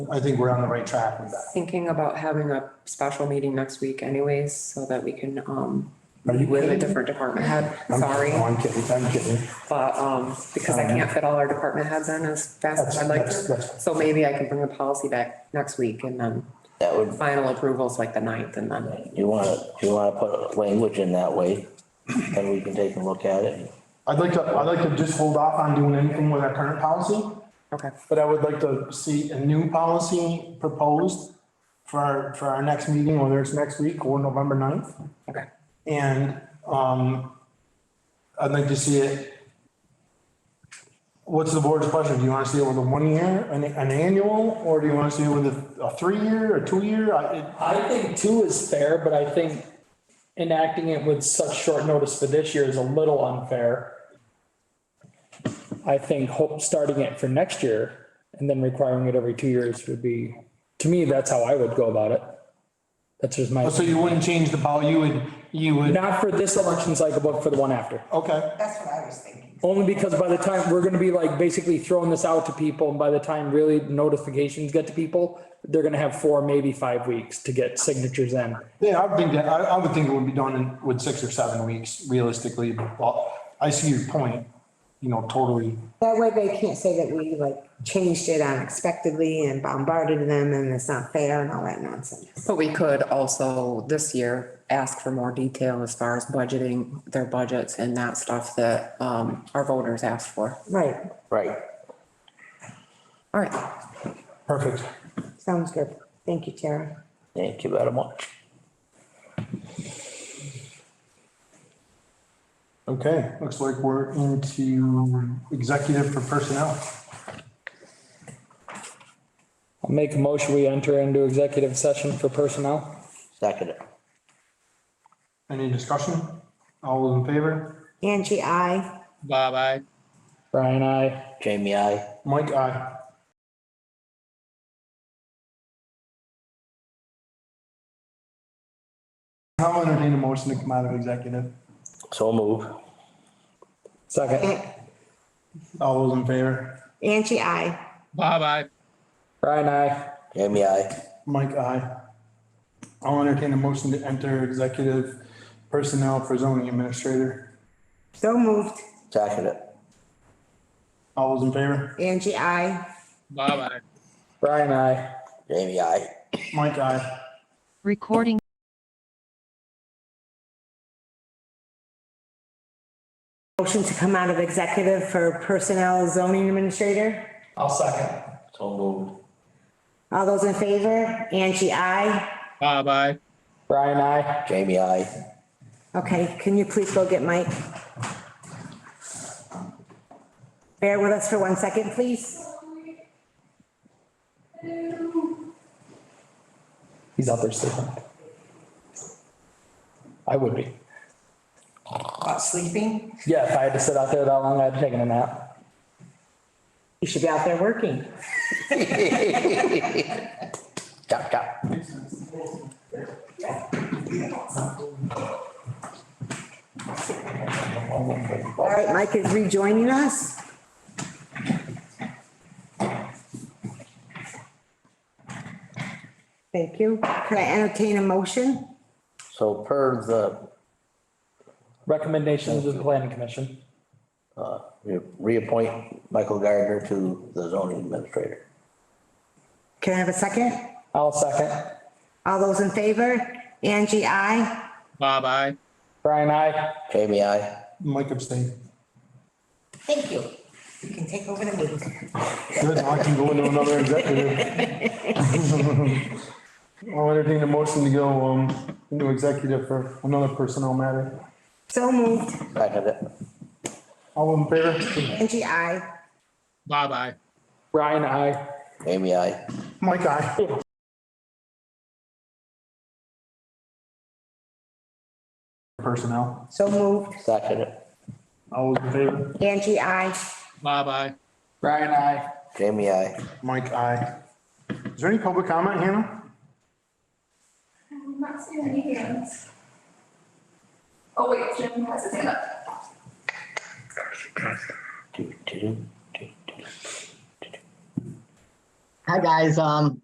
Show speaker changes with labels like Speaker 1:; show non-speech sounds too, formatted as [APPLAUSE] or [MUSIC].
Speaker 1: I think we're on the right track with that.
Speaker 2: Thinking about having a special meeting next week anyways, so that we can, um,
Speaker 1: Are you
Speaker 2: with a
Speaker 1: kidding?
Speaker 2: different department head,
Speaker 1: I'm-
Speaker 2: sorry.
Speaker 1: No, I'm kidding, I'm kidding.
Speaker 2: But, um, because I can't fit all our department heads in as fast as
Speaker 1: That's,
Speaker 2: I'd like
Speaker 1: that's,
Speaker 2: to.
Speaker 1: that's,
Speaker 2: So maybe I can bring the policy back next week and then
Speaker 3: That would,
Speaker 2: final approvals like the ninth and then,
Speaker 3: you wanna, you wanna put language in that way, then we can take a look at it.
Speaker 1: I'd like to, I'd like to just hold off on doing anything with our current policy,
Speaker 2: okay.
Speaker 1: but I would like to see a new policy proposed for our, for our next meeting, whether it's next week or November 9th.
Speaker 2: Okay.
Speaker 1: And, um, I'd like to see it. What's the board's pleasure? Do you want to see it with a one year, an, an annual, or do you want to see it with a, a three year, a two year? I, it,
Speaker 4: I think two is fair, but I think enacting it with such short notice for this year is a little unfair. I think hope, starting it for next year and then requiring it every two years would be, to me, that's how I would go about it. That's just my,
Speaker 1: Oh, So you wouldn't change the policy, you would, you would,
Speaker 4: not for this election cycle, but for the one after.
Speaker 1: okay,
Speaker 5: That's what I was thinking.
Speaker 4: Only because by the time, we're gonna be like basically throwing this out to people, and by the time really notifications get to people, they're gonna have four, maybe five weeks to get signatures in.
Speaker 1: yeah, I think that, I, I would think it would be done in, with six or seven weeks realistically, but I see your point, you know, totally.
Speaker 6: That way they can't say that we like changed it unexpectedly and bombarded them and it's not fair and all that nonsense.
Speaker 2: But we could also this year ask for more detail as far as budgeting their budgets and that stuff that, um, our voters asked for.
Speaker 6: Right,
Speaker 3: Right.
Speaker 2: All right,
Speaker 1: Perfect.
Speaker 6: sounds good. Thank you, Tara.
Speaker 3: Thank you very much.
Speaker 1: Okay, looks like we're into executive for personnel.
Speaker 4: I'll make a motion, we enter into executive session for personnel.
Speaker 3: Second, it.
Speaker 1: Any discussion? All those in favor?
Speaker 6: Angie, I.
Speaker 7: Bye bye.
Speaker 4: Brian, I.
Speaker 3: Jamie, I.
Speaker 1: Mike, aye. I'll entertain a motion to come out of executive.
Speaker 3: So move.
Speaker 4: Second.
Speaker 1: All those in favor?
Speaker 6: Angie, I.
Speaker 7: Bye bye.
Speaker 4: Brian, I.
Speaker 3: Jamie, I.
Speaker 1: Mike, aye. I'll entertain a motion to enter executive personnel for zoning administrator.
Speaker 6: So moved.
Speaker 3: Second, it.
Speaker 1: All those in favor?
Speaker 6: Angie, I.
Speaker 7: Bye bye.
Speaker 4: Brian, I.
Speaker 3: Jamie, I.
Speaker 1: Mike, aye.
Speaker 8: Recording
Speaker 6: Motion to come out of executive for personnel zoning administrator.
Speaker 4: I'll second.
Speaker 3: So move.
Speaker 6: All those in favor? Angie, I.
Speaker 7: Bye bye.
Speaker 4: Brian, I.
Speaker 3: Jamie, I.
Speaker 6: Okay, can you please go get Mike? Bear with us for one second, please.
Speaker 4: He's out there sleeping. I would be.
Speaker 5: About sleeping?
Speaker 4: Yeah, if I had to sit out there that long, I'd have taken a nap.
Speaker 6: You should be out there working.
Speaker 3: Chop, chop.
Speaker 6: All right, Mike is rejoining us. Thank you. Can I entertain a motion?
Speaker 3: So per the
Speaker 4: Recommendations of the planning commission.
Speaker 3: re- reappoint Michael Gardner to the zoning administrator.
Speaker 6: Can I have a second?
Speaker 4: I'll second.
Speaker 6: All those in favor? Angie, I.
Speaker 7: Bye bye.
Speaker 4: Brian, I.
Speaker 3: Jamie, I.
Speaker 1: Mike abstain.
Speaker 5: Thank you. You can take over the meeting.
Speaker 1: Good, now I can go into another executive. [LAUGHS] I'll entertain a motion to go, um, into executive for another personnel matter.
Speaker 6: So moved.
Speaker 3: Second, it.
Speaker 1: All in favor?
Speaker 6: Angie, I.
Speaker 7: Bye bye.
Speaker 4: Brian, I.
Speaker 3: Jamie, I.
Speaker 1: Mike, aye. Personnel.
Speaker 6: So moved.
Speaker 3: Second, it.
Speaker 1: All those in favor?
Speaker 6: Angie, I.
Speaker 7: Bye bye.
Speaker 4: Brian, I.
Speaker 3: Jamie, I.
Speaker 1: Mike, aye. Is there any public comment, Hannah?
Speaker 9: I'm not seeing any hands. Oh, wait, Jim has his hand up.
Speaker 3: Do, do, do, do, do, do.
Speaker 8: Hi, guys. Um,